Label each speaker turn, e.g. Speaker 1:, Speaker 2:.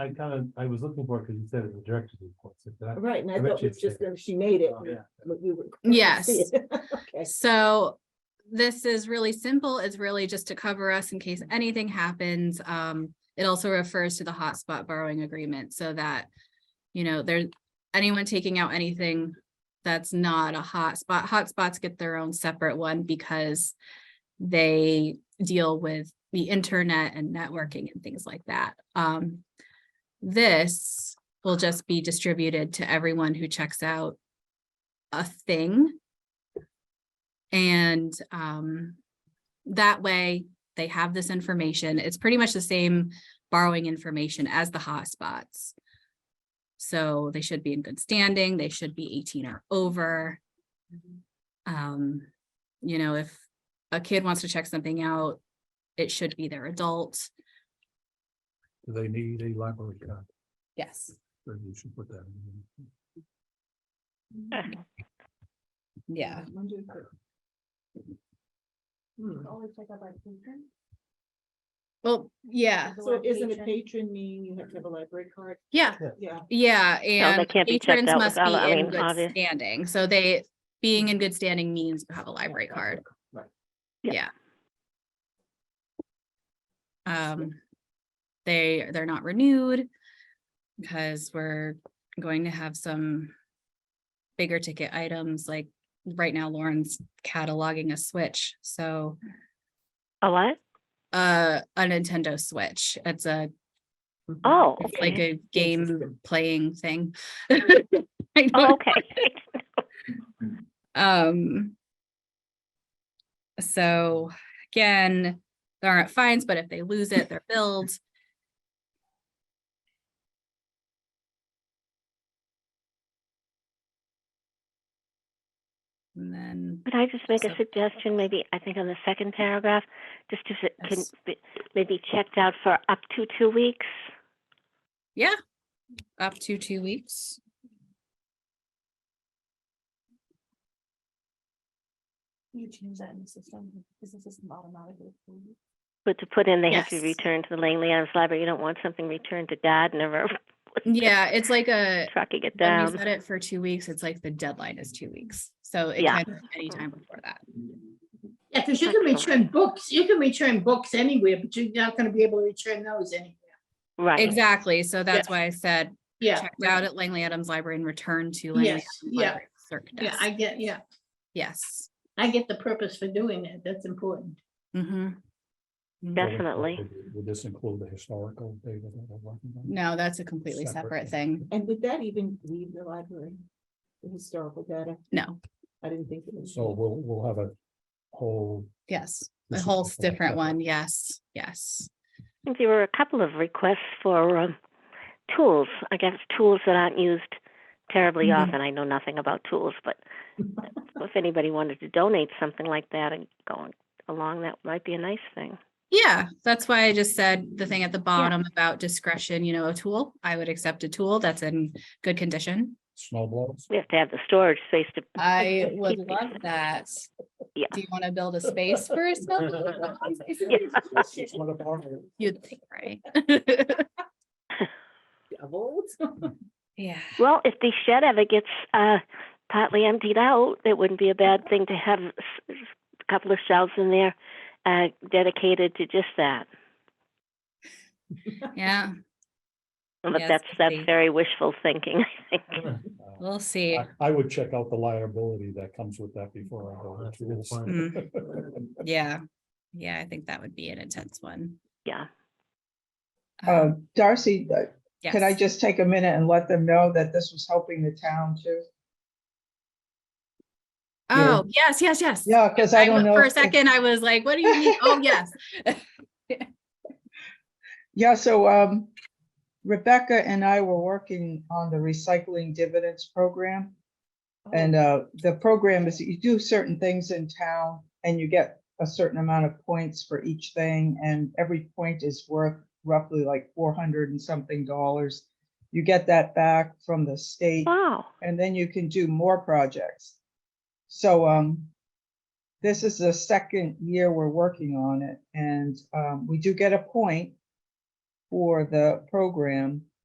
Speaker 1: I kind of, I was looking for it because you said it was director's report. so that-
Speaker 2: Right, and I
Speaker 1: I bet
Speaker 2: thought
Speaker 1: you
Speaker 2: we
Speaker 1: it's
Speaker 2: just,
Speaker 1: there.
Speaker 2: gonna- she made it.
Speaker 1: Oh,
Speaker 2: and
Speaker 1: yeah.
Speaker 2: we- we were-
Speaker 3: Yes.
Speaker 2: see it. Okay,
Speaker 3: So this is really simple. It's really just to cover us in case anything happens. Um, it also refers to the hotspot borrowing agreement so that, you know, there, anyone taking out anything that's not a hotspot, hotspots get their own separate one because they deal with the internet and networking and things like that. Um, this will just be distributed to everyone who checks out a thing. And um, that way they have this information. It's pretty much the same borrowing information as the hotspots. So they should be in good standing. They should be eighteen or over. Um, you know, if a kid wants to check something out, it should be their adult.
Speaker 1: Do They need a library card,
Speaker 3: Yes.
Speaker 1: so you should put that in.
Speaker 3: Yeah.
Speaker 2: Hmm.
Speaker 3: Well, yeah,
Speaker 2: So isn't a patron mean you have to have a library card?
Speaker 3: yeah.
Speaker 2: Yeah.
Speaker 3: Yeah, and
Speaker 4: can't be checked
Speaker 3: patrons
Speaker 4: out
Speaker 3: must
Speaker 4: without- I
Speaker 3: be in
Speaker 4: mean,
Speaker 3: good
Speaker 4: obvious-
Speaker 3: standing, so they, being in good standing means you have a library card.
Speaker 1: Right.
Speaker 3: Yeah.
Speaker 4: Yeah.
Speaker 3: Um, they, they're not renewed because we're going to have some bigger ticket items, like right now Lauren's cataloging a Switch, so
Speaker 4: A what?
Speaker 3: uh, a Nintendo Switch, it's a
Speaker 2: Mm-hmm.
Speaker 4: Oh,
Speaker 3: it's like
Speaker 4: okay.
Speaker 3: a
Speaker 2: Game
Speaker 3: game
Speaker 2: system.
Speaker 3: playing thing. I don't
Speaker 4: Oh, okay.
Speaker 3: Um. So again, there aren't fines, but if they lose it, they're billed. And then,
Speaker 4: Could I just make
Speaker 3: So-
Speaker 4: a suggestion? Maybe, I think on the second paragraph, just if it can
Speaker 3: Yes.
Speaker 4: be maybe checked out for up to two weeks.
Speaker 3: yeah, up to two weeks.
Speaker 5: You change that in the system, because the system automatically. approves.
Speaker 4: But to put in, they have to
Speaker 3: Yes.
Speaker 4: be returned to the Langley Adams Library. You don't want something returned to dad, never
Speaker 3: Uh, Yeah, it's like a,
Speaker 4: tracking it
Speaker 3: when we
Speaker 4: down.
Speaker 3: set it for two weeks, it's like the deadline is two weeks. So it
Speaker 4: Yeah.
Speaker 3: can be anytime before that.
Speaker 6: Yeah, because you can return books, you can return books anywhere, but you're not gonna be able to return those anywhere.
Speaker 4: Right.
Speaker 3: Exactly. So that's why I said
Speaker 6: Yeah,
Speaker 3: checked out at Langley Adams Library and returned to Langley.
Speaker 6: Yes,
Speaker 3: Adams
Speaker 6: yeah.
Speaker 3: Library clerk
Speaker 6: yeah,
Speaker 3: desk.
Speaker 6: I get, yeah,
Speaker 3: Yes.
Speaker 6: I get the purpose for doing that. That's important.
Speaker 3: Mhm.
Speaker 4: Yes. Definitely.
Speaker 1: Would this include the historical data that we're working on?
Speaker 3: No, that's a completely
Speaker 1: Separate.
Speaker 3: separate thing.
Speaker 2: And would that even leave the library? The historical data?
Speaker 3: No,
Speaker 2: I didn't think it was.
Speaker 1: So we'll, we'll have a whole.
Speaker 3: yes, a
Speaker 1: this is
Speaker 3: whole
Speaker 1: just a
Speaker 3: different
Speaker 1: separate-
Speaker 3: one. Yes, yes.
Speaker 4: I think There were a couple of requests for um, tools, I guess, tools that aren't used terribly
Speaker 3: Mhm.
Speaker 4: often. I know nothing about tools, but if anybody wanted to donate something like that and going along, that might be a nice thing.
Speaker 3: Yeah, that's why I just said the thing at the bottom about discretion, you know, a tool. I would accept a tool that's in good condition.
Speaker 1: Snow blows.
Speaker 4: We have to have the storage space to.
Speaker 3: I would
Speaker 4: keep these
Speaker 3: love that.
Speaker 4: Yeah.
Speaker 3: Do you want to build a space for a snowball?
Speaker 1: It's one of our-
Speaker 3: You'd think, right?
Speaker 2: Oh,
Speaker 3: Yeah.
Speaker 4: Well, if the shed ever gets uh, partly emptied out, it wouldn't be a bad thing to have s- s- a couple of shelves in there uh, dedicated to just that.
Speaker 3: Yeah,
Speaker 4: But
Speaker 3: Yes,
Speaker 4: that's
Speaker 3: could be.
Speaker 4: that's very wishful thinking. I think.
Speaker 1: Uh,
Speaker 3: we'll see.
Speaker 1: I- I would check out the liability that comes with that before I go.
Speaker 7: That's a
Speaker 1: to
Speaker 7: good
Speaker 1: this.
Speaker 7: point.
Speaker 3: Hmm. Mm-hmm. Yeah, yeah, I think that would be an intense one. Um,
Speaker 4: Yeah.
Speaker 8: Uh, Darcy, uh, can I
Speaker 3: yes.
Speaker 8: just take a minute and let them know that this was helping the town too?
Speaker 3: Oh, yes, yes, yes.
Speaker 8: Yeah, because I don't
Speaker 3: w-
Speaker 8: know.
Speaker 3: For a
Speaker 8: if-
Speaker 3: second, I was like, what do you mean? Oh, yes.
Speaker 8: Yeah, so um, Rebecca and I were working on the recycling dividends program. And uh, the program is that you do certain things in town and you get a certain amount of points for each thing. And every point is worth roughly like four hundred and something dollars. You get that back from the state.
Speaker 4: Wow.
Speaker 8: and then you can do more projects. So um, this is the second year we're working on it, and um, we do get a point for the program.